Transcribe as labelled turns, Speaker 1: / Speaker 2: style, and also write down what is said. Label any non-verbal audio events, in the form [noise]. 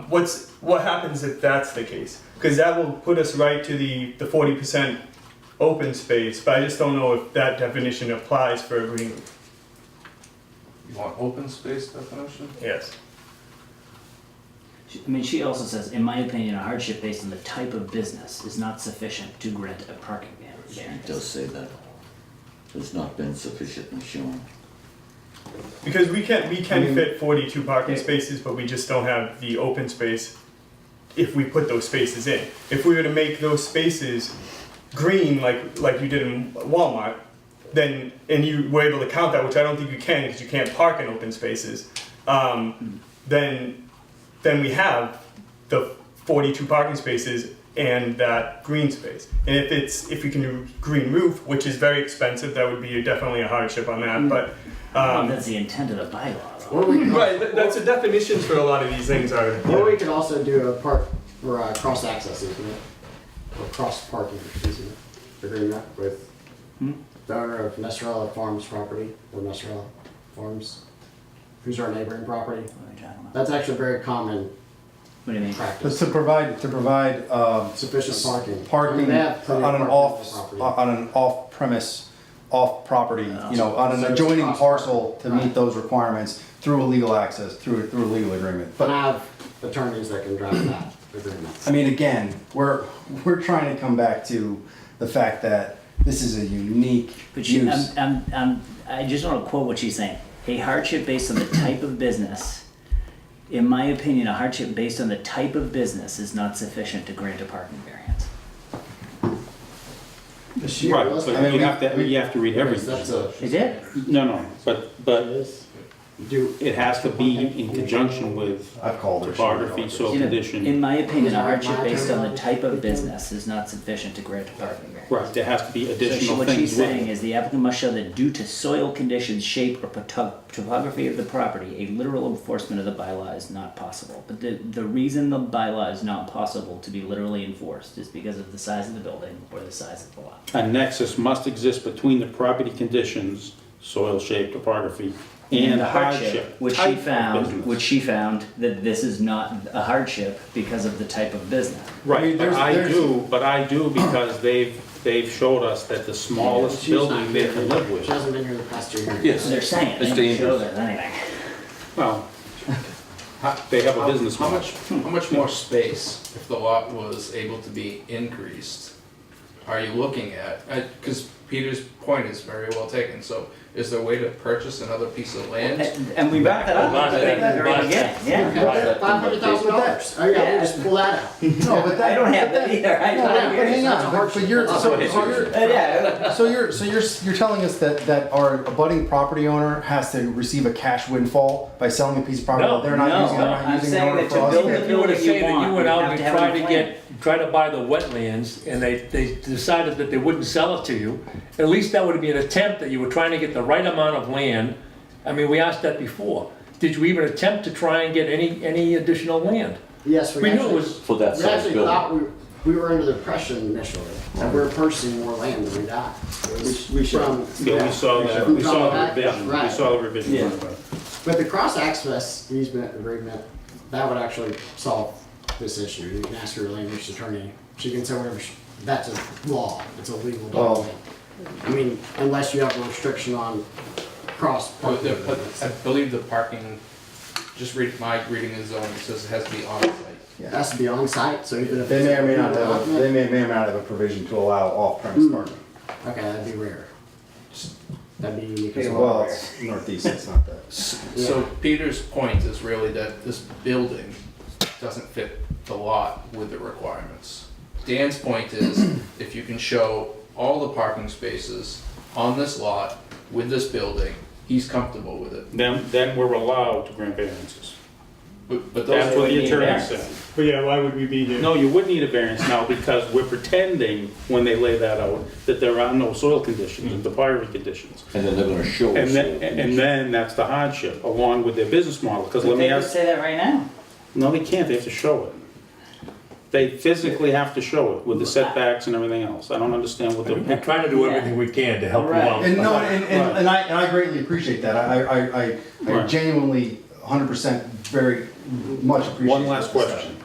Speaker 1: what's what happens if that's the case? Because that will put us right to the the forty percent open space. But I just don't know if that definition applies for a green.
Speaker 2: You want open space definition?
Speaker 1: Yes.
Speaker 3: She- I mean, she also says, in my opinion, a hardship based on the type of business is not sufficient to grant a parking ban.
Speaker 4: It
Speaker 3: variance.
Speaker 4: does say that. Has not been sufficiently shown.
Speaker 1: Because we can we can
Speaker 5: I mean-
Speaker 1: fit forty two parking spaces, but we just don't have the open space. If we put those spaces in, if we were to make those spaces green like like you did in Walmart, then and you were able to count that, which I don't think you can because you can't park in open spaces. Um, then then we have the forty two parking spaces and that green space. And if it's if you can do green roof, which is very expensive, that would be definitely a hardship on
Speaker 5: Mm.
Speaker 1: that. But
Speaker 3: I don't
Speaker 1: um,
Speaker 3: know if that's the intent of the bylaw. though.
Speaker 5: Or we can,
Speaker 1: Right, th- that's the definitions for a lot of these things are.
Speaker 5: or we could also do a park or uh cross access easement or cross parking easement agreement with
Speaker 3: Hmm.
Speaker 5: the owner of Nestorella Farms property or Nestorella Farms, who's our neighboring property.
Speaker 3: What are we talking about?
Speaker 5: That's actually very common
Speaker 3: What do you mean?
Speaker 5: practice.
Speaker 6: But to provide, to provide um,
Speaker 5: Sufficient parking. I mean,
Speaker 6: parking
Speaker 5: they have plenty
Speaker 6: on
Speaker 5: of parking
Speaker 6: an
Speaker 5: on
Speaker 6: off, uh,
Speaker 5: the property.
Speaker 6: on an off-premise, off-property, you know, on
Speaker 5: So
Speaker 6: an
Speaker 5: it's
Speaker 6: adjoining
Speaker 5: cross-
Speaker 6: parcel to
Speaker 5: right.
Speaker 6: meet those requirements through a legal access, through, through a legal agreement.
Speaker 5: And
Speaker 6: But,
Speaker 5: I have attorneys that can draft that agreement.
Speaker 6: I mean, again, we're, we're trying to come back to the fact that this is a unique
Speaker 3: But um, she, I'm,
Speaker 6: use.
Speaker 3: I'm, I'm, I just want to quote what she's saying. A hardship based on the type of business, in my opinion, a hardship based on the type of business is not sufficient to grant a parking variance.
Speaker 5: She
Speaker 7: Right,
Speaker 5: realistic-
Speaker 7: so
Speaker 6: I mean,
Speaker 7: you
Speaker 6: we-
Speaker 7: have to, you have to read everything.
Speaker 5: That's a.
Speaker 3: Is it?
Speaker 7: No, no, but, but
Speaker 5: Do,
Speaker 7: it has to be in conjunction with
Speaker 6: I've called her.
Speaker 7: topography, soil
Speaker 3: In a- In
Speaker 7: condition.
Speaker 3: my opinion, a hardship based on the type of business is not sufficient to grant a parking variance.
Speaker 7: Right, there has to be
Speaker 3: So she-
Speaker 7: additional
Speaker 3: what she's
Speaker 7: things with
Speaker 3: saying
Speaker 7: it.
Speaker 3: is the applicant must show that due to soil conditions, shape, or poto- topography of the property, a literal enforcement of the bylaw is not possible. But the, the reason the bylaw is not possible to be literally enforced is because of the size of the building or the size of the lot.
Speaker 7: A nexus must exist between the property conditions, soil shape, topography, and
Speaker 3: the
Speaker 7: hardship.
Speaker 3: Which
Speaker 7: type
Speaker 3: she
Speaker 7: of
Speaker 3: found,
Speaker 7: business.
Speaker 3: which she found that this is not a hardship because of the type of business.
Speaker 6: I mean,
Speaker 7: Right, but
Speaker 6: there's-
Speaker 7: I
Speaker 6: there's-
Speaker 7: do, but I do because they've, they've showed us that the smallest
Speaker 5: she's not
Speaker 7: building they
Speaker 5: here.
Speaker 7: can live with.
Speaker 5: She hasn't been here the past two years.
Speaker 2: Yes.
Speaker 3: So they're saying,
Speaker 2: It's
Speaker 3: they didn't show
Speaker 2: dangerous.
Speaker 3: there's anything.
Speaker 7: [laughs] Well, they have a business
Speaker 8: How
Speaker 7: model.
Speaker 8: much, how much more space, if the lot was able to be increased, are you looking at? Because Peter's point is very well taken, so is there a way to purchase another piece of land?
Speaker 3: And- And we wrapped that up at the very beginning, yeah.
Speaker 5: Five hundred thousand dollars. Oh yeah, we'll just pull that out.
Speaker 6: No, but
Speaker 3: I
Speaker 6: that,
Speaker 3: don't have that either. I
Speaker 6: no,
Speaker 3: don't
Speaker 6: but
Speaker 3: have
Speaker 6: hang
Speaker 3: it.
Speaker 6: on, but- but you're, so so you're,
Speaker 3: Uh, Yeah,
Speaker 6: So you're so you're you're telling us that that our abutting property owner has to receive a cash windfall by selling a piece of property
Speaker 9: No,
Speaker 6: that they're not
Speaker 3: no,
Speaker 6: using. They're
Speaker 3: no.
Speaker 6: not
Speaker 3: I'm
Speaker 6: using in
Speaker 3: saying
Speaker 6: order
Speaker 3: that
Speaker 6: for
Speaker 3: to
Speaker 6: us
Speaker 3: build
Speaker 6: to-
Speaker 3: the
Speaker 9: If you were to
Speaker 3: building you
Speaker 9: say that
Speaker 3: want,
Speaker 9: you went
Speaker 3: you
Speaker 9: out
Speaker 3: have
Speaker 9: and
Speaker 3: to have
Speaker 9: tried
Speaker 3: a
Speaker 9: to
Speaker 3: plan.
Speaker 9: get, try to buy the wetlands, and they, they decided that they wouldn't sell it to you, at least that would be an attempt that you were trying to get the right amount of land. I mean, we asked that before. Did you even attempt to try and get any, any additional land?
Speaker 5: Yes, we
Speaker 9: We knew it
Speaker 5: actually,
Speaker 9: was,
Speaker 4: For that
Speaker 5: we
Speaker 4: size
Speaker 5: actually
Speaker 4: building.
Speaker 5: thought we, we were under the impression initially that we were purchasing more land than we got. It was
Speaker 6: We- we should.
Speaker 5: from-
Speaker 7: Yeah, we saw that, we saw the revision, we
Speaker 5: Right.
Speaker 7: saw the revision.
Speaker 3: Yeah.
Speaker 5: But the cross access easement agreement, that would actually solve this issue. You can ask your land use attorney. She can say whatever, she- that's a law. It's a legal
Speaker 6: Well-
Speaker 5: document. I mean, unless you have a restriction on cross.
Speaker 8: Or the- but I believe the parking, just read, my reading is zone, it says it has to be on site.
Speaker 5: It has to be on site, so even if.
Speaker 6: They
Speaker 5: it's
Speaker 6: may or may
Speaker 5: a
Speaker 6: not have a,
Speaker 5: document-
Speaker 6: they may, may or may not have a provision to allow off-premise parking.
Speaker 5: Okay, that'd be rare. That'd be unique as well.
Speaker 6: Well, it's northeast. It's not that.
Speaker 8: So Peter's point is really that this building doesn't fit the lot with the requirements. Dan's point is, if you can show all the parking spaces on this lot with this building, he's comfortable with it.
Speaker 7: Then, then we're allowed to grant variances.
Speaker 8: But, but
Speaker 7: That's
Speaker 8: those
Speaker 7: what
Speaker 8: are,
Speaker 7: the attorney
Speaker 3: variance.
Speaker 7: said.
Speaker 1: But yeah, why would we be here?
Speaker 7: No, you would need a variance now because we're pretending, when they lay that out, that there are no soil conditions and topography conditions.
Speaker 4: And then they're gonna show
Speaker 7: And
Speaker 4: us.
Speaker 7: then, and then that's the hardship, along with their business model, because
Speaker 3: But
Speaker 7: let me
Speaker 3: they could
Speaker 7: ask,
Speaker 3: say that right now.
Speaker 7: no, they can't, they have to show it. They physically have to show it with the setbacks and everything else. I don't understand what
Speaker 9: we're
Speaker 7: the,
Speaker 9: trying to do everything we can to help you
Speaker 3: Right.
Speaker 6: [laughs]
Speaker 9: out.
Speaker 6: And no, and, and, and I and I greatly appreciate that. I I, I, I
Speaker 7: Right.
Speaker 6: genuinely 100 percent very
Speaker 10: Much appreciated.
Speaker 6: One last question.